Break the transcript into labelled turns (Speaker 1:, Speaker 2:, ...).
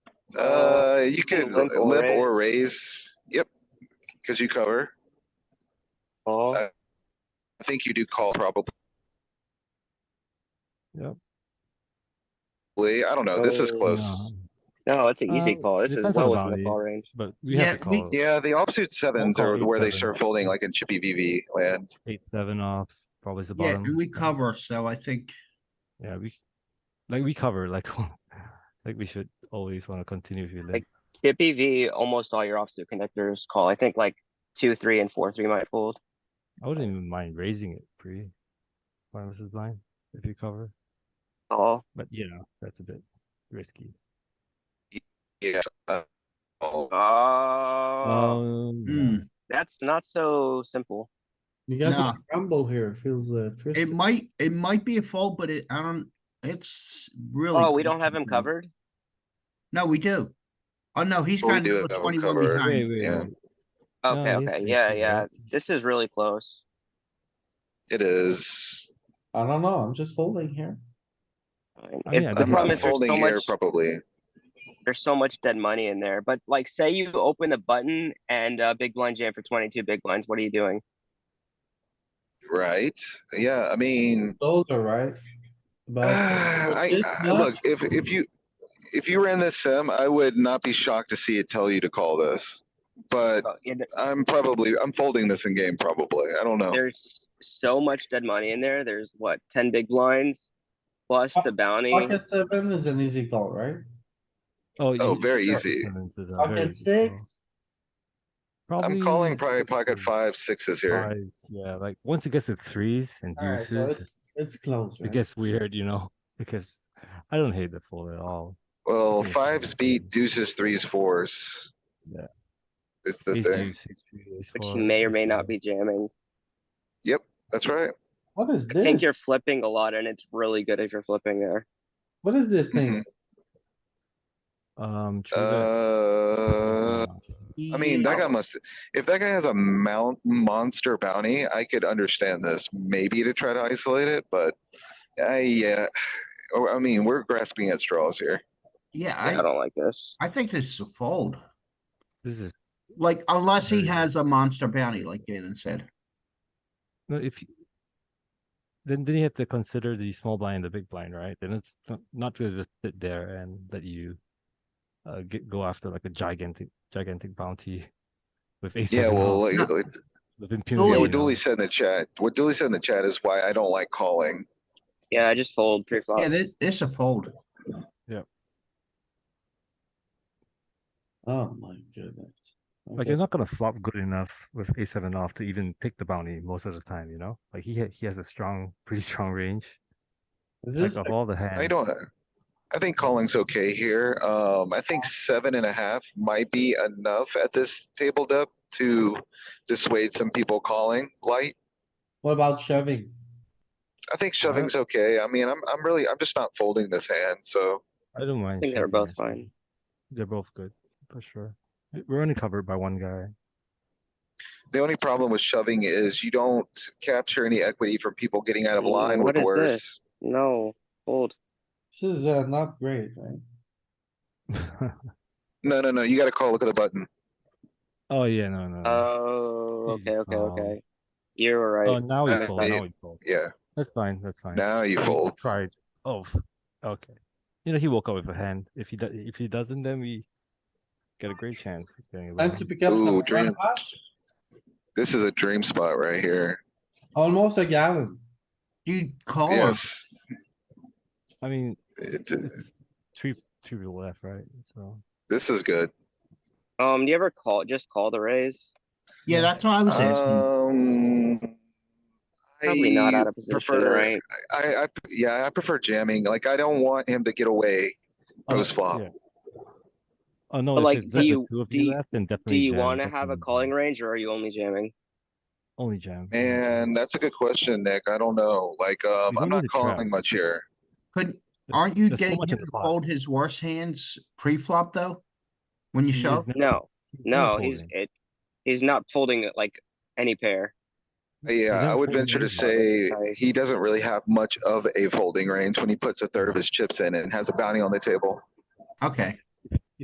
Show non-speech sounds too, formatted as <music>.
Speaker 1: Uh, you can
Speaker 2: Limp or
Speaker 1: limp or raise, yep, because you cover.
Speaker 2: Call.
Speaker 1: Uh, I think you do call probably.
Speaker 3: Yep.
Speaker 1: I don't know, this is
Speaker 2: Oh,
Speaker 1: close.
Speaker 3: No,
Speaker 2: No, it's an easy
Speaker 3: Uh,
Speaker 2: call. This is
Speaker 3: depends on
Speaker 2: well
Speaker 3: the
Speaker 2: within the
Speaker 3: value.
Speaker 2: call range.
Speaker 3: But we have to
Speaker 4: Yeah, we-
Speaker 3: call
Speaker 1: Yeah, the offsuit sevens
Speaker 3: call
Speaker 1: are
Speaker 3: eight
Speaker 1: where they
Speaker 3: seven.
Speaker 1: start folding like in chippy VV land.
Speaker 3: eight, seven off, probably the
Speaker 4: Yeah,
Speaker 3: bottom.
Speaker 4: and we
Speaker 3: yeah.
Speaker 4: cover, so I think,
Speaker 3: Yeah, we, like, we cover, like, <laughs> like we should always wanna continue if you live.
Speaker 2: Like, Chippy V, almost all your offsuit connectors call. I think like two, three, and four, three might fold.
Speaker 3: I wouldn't even mind raising it pre. Blind versus blind, if you cover,
Speaker 2: Call.
Speaker 3: but you know, that's a bit risky.
Speaker 1: Yeah. uh, Oh, Uh,
Speaker 2: Oh,
Speaker 3: Um,
Speaker 4: hmm,
Speaker 3: yeah.
Speaker 2: that's not so simple.
Speaker 5: You guys
Speaker 4: Nah.
Speaker 5: want to rumble here, feels uh,
Speaker 4: it
Speaker 5: frisky.
Speaker 4: might, it might be a fold, but it, I don't, it's really.
Speaker 2: Oh, we don't have him
Speaker 4: close.
Speaker 2: covered?
Speaker 4: No, we do. Oh, no, he's
Speaker 1: Oh, we
Speaker 4: kind
Speaker 1: do
Speaker 4: of
Speaker 1: have him
Speaker 4: twenty-one
Speaker 1: covered.
Speaker 3: Wait,
Speaker 4: behind.
Speaker 3: wait,
Speaker 1: yeah.
Speaker 3: wait.
Speaker 2: Okay,
Speaker 3: No, he's
Speaker 2: okay,
Speaker 3: taking
Speaker 2: yeah,
Speaker 3: it,
Speaker 2: yeah.
Speaker 3: right?
Speaker 2: This is really close.
Speaker 1: it is.
Speaker 5: I don't know, I'm just folding here.
Speaker 2: Fine.
Speaker 3: I mean, I
Speaker 2: If- The
Speaker 3: don't know.
Speaker 1: I'm
Speaker 2: problem is there's
Speaker 1: folding
Speaker 2: so
Speaker 1: here
Speaker 2: much,
Speaker 1: probably.
Speaker 2: there's so much dead money in there, but like, say you open the button and, uh, big blind jam for twenty-two big blinds, what are you doing?
Speaker 1: Right, yeah, I mean,
Speaker 5: Those
Speaker 1: <sighs>
Speaker 5: are right. But with
Speaker 1: I,
Speaker 5: this
Speaker 1: I-
Speaker 5: nut,
Speaker 1: look, if, if you, if you ran this sim, I would not be shocked to see it tell you to call this. But
Speaker 2: Uh, yeah, th-
Speaker 1: I'm probably, I'm folding this in game probably, I don't know.
Speaker 2: There's so much dead money in there. There's what, ten big blinds? Plus the bounty.
Speaker 5: pocket seven is an easy call, right?
Speaker 3: Oh,
Speaker 1: Oh,
Speaker 3: you-
Speaker 1: very
Speaker 3: pocket
Speaker 1: easy.
Speaker 3: sevens is a very
Speaker 5: Pocket
Speaker 3: easy call.
Speaker 5: six,
Speaker 1: I'm
Speaker 3: Probably
Speaker 1: calling probably pocket
Speaker 3: sixes,
Speaker 1: five, sixes here.
Speaker 3: fives, Yeah, like, once it gets to threes and
Speaker 5: alright, so
Speaker 3: deuces,
Speaker 5: it's, it's close,
Speaker 3: it
Speaker 5: right?
Speaker 3: gets weird, you know, <laughs> because I don't hate the fold at all.
Speaker 1: Well,
Speaker 3: Yeah.
Speaker 1: fives beat deuces, threes, fours.
Speaker 3: Yeah.
Speaker 1: It's the
Speaker 3: Ace
Speaker 1: thing,
Speaker 3: deuce, ace three, ace
Speaker 2: Which
Speaker 3: four,
Speaker 2: you may or
Speaker 3: ace
Speaker 2: may not
Speaker 3: five.
Speaker 2: be jamming.
Speaker 1: that's right.
Speaker 5: What is
Speaker 2: I think
Speaker 5: this?
Speaker 2: you're flipping a lot and it's really good if you're flipping there.
Speaker 5: What is this
Speaker 3: <laughs>
Speaker 5: thing?
Speaker 3: Um, true that.
Speaker 1: Uh,
Speaker 3: Uh,
Speaker 1: I mean, that
Speaker 4: Yeah.
Speaker 1: guy must, if that guy has a mount monster bounty, I could understand this, maybe to try to isolate it, but I, yeah. Or, I mean, we're grasping at straws here.
Speaker 2: I
Speaker 4: Yeah,
Speaker 2: don't like this.
Speaker 4: I, I think this is a fold,
Speaker 3: This is,
Speaker 4: like unless he
Speaker 3: Very-
Speaker 4: has a monster bounty, like Jalen said.
Speaker 3: no, if. you- Then, then you have to consider the small blind and the big blind, right? Then it's not, not gonna just sit there and let you. Uh, get, go after like a gigantic, gigantic bounty. With ace.
Speaker 1: Yeah,
Speaker 3: seven
Speaker 1: well,
Speaker 3: off,
Speaker 1: like,
Speaker 4: No.
Speaker 1: like-
Speaker 3: With impunity.
Speaker 1: yeah,
Speaker 4: Dooley-
Speaker 3: you
Speaker 1: what
Speaker 3: know.
Speaker 1: Dooley said in the chat, what Dooley said in the chat is why I don't like calling.
Speaker 2: Yeah, I just fold
Speaker 1: Uh,
Speaker 2: pre-flop.
Speaker 4: Yeah, this, this is a fold.
Speaker 5: Oh my goodness.
Speaker 3: Like
Speaker 5: Okay.
Speaker 3: you're not gonna flop good enough with a seven off to even take the bounty most of the time, you know. Like he ha- he has a strong, pretty <laughs> strong range.
Speaker 5: Is
Speaker 3: Like
Speaker 5: this,
Speaker 3: of all the hands.
Speaker 1: I don't, I think calling's okay here. Um, I think seven and a half might be enough at this table depth to dissuade some people calling light.
Speaker 5: what about shoving?
Speaker 1: I think
Speaker 5: Alright.
Speaker 1: shoving's okay. I mean, I'm, I'm really, I'm just not folding this hand, so
Speaker 3: I don't mind.
Speaker 2: I think they're
Speaker 3: shoving,
Speaker 2: both
Speaker 3: actually.
Speaker 2: fine.
Speaker 3: They're both good for sure. We- We're only covered by one guy. <laughs>
Speaker 1: the only problem with shoving is you don't capture any equity from people getting out of
Speaker 2: Mm,
Speaker 1: line
Speaker 2: what
Speaker 1: with
Speaker 2: is
Speaker 1: worse.
Speaker 2: this? No, fold.
Speaker 5: This is uh, not great, right?
Speaker 1: No, no, no, you gotta call, look at the button.
Speaker 3: oh yeah, no, no. no.
Speaker 2: Oh,
Speaker 3: Easy
Speaker 2: okay, okay,
Speaker 3: call.
Speaker 2: okay. You're
Speaker 3: oh,
Speaker 2: right.
Speaker 3: now
Speaker 1: uh,
Speaker 3: we fold.
Speaker 1: they-
Speaker 3: Now we fold.
Speaker 1: Yeah,
Speaker 3: That's fine. That's fine.
Speaker 1: now you
Speaker 3: We
Speaker 1: fold.
Speaker 3: Tried. Oh, <laughs> f- okay. You know he woke up with a hand. If he do- if he doesn't, then we get a great chance. of getting a
Speaker 5: Time
Speaker 3: bounty.
Speaker 5: to pick up some
Speaker 1: Ooh, dream.
Speaker 5: pot,
Speaker 1: This is a dream spot right here.
Speaker 5: almost a gallon.
Speaker 4: You call him.
Speaker 1: Yes.
Speaker 3: I mean,
Speaker 1: It-
Speaker 3: it's three three people left, right? So.
Speaker 1: This is good.
Speaker 2: Um, do you ever call, just call the raise?
Speaker 4: Yeah, that's what I was asking.
Speaker 1: Uh, Um.
Speaker 2: Probably not
Speaker 1: I
Speaker 2: out of position,
Speaker 1: prefer-
Speaker 2: right?
Speaker 1: I, I, yeah, I prefer jamming. Like, I don't want him to get away
Speaker 3: Oh,
Speaker 1: post flop.
Speaker 3: yeah. Oh no!
Speaker 2: But,
Speaker 3: if
Speaker 2: like,
Speaker 3: it's
Speaker 2: do
Speaker 3: just the
Speaker 2: you-
Speaker 3: two of
Speaker 2: do
Speaker 3: you
Speaker 2: you-
Speaker 3: left, then
Speaker 2: Do
Speaker 3: definitely
Speaker 2: you
Speaker 3: jam,
Speaker 2: wanna have a
Speaker 3: definitely
Speaker 2: calling
Speaker 3: jam.
Speaker 2: range or are you only jamming?
Speaker 3: Only jam. only jam.
Speaker 1: And that's a good question, Nick. I don't know. Like, um,
Speaker 3: don't
Speaker 1: I'm
Speaker 3: need
Speaker 1: not
Speaker 3: to trap.
Speaker 1: calling much here.
Speaker 4: Couldn't,
Speaker 3: There's-
Speaker 4: aren't you
Speaker 3: there's so
Speaker 4: getting
Speaker 3: much
Speaker 4: him
Speaker 3: in the
Speaker 4: to
Speaker 3: pot.
Speaker 4: fold his worst hands pre-flop though? When you
Speaker 3: He is
Speaker 4: shove?
Speaker 3: never-
Speaker 2: No,
Speaker 3: he's never
Speaker 2: no, he's,
Speaker 3: folding.
Speaker 2: it, he's not folding it like any pair.
Speaker 1: Yeah, I
Speaker 3: never
Speaker 1: would
Speaker 3: folding
Speaker 1: venture to say
Speaker 3: anybody.
Speaker 1: he doesn't really have much of a folding range when he puts a third of his chips in and has a bounty on the table.
Speaker 4: Okay,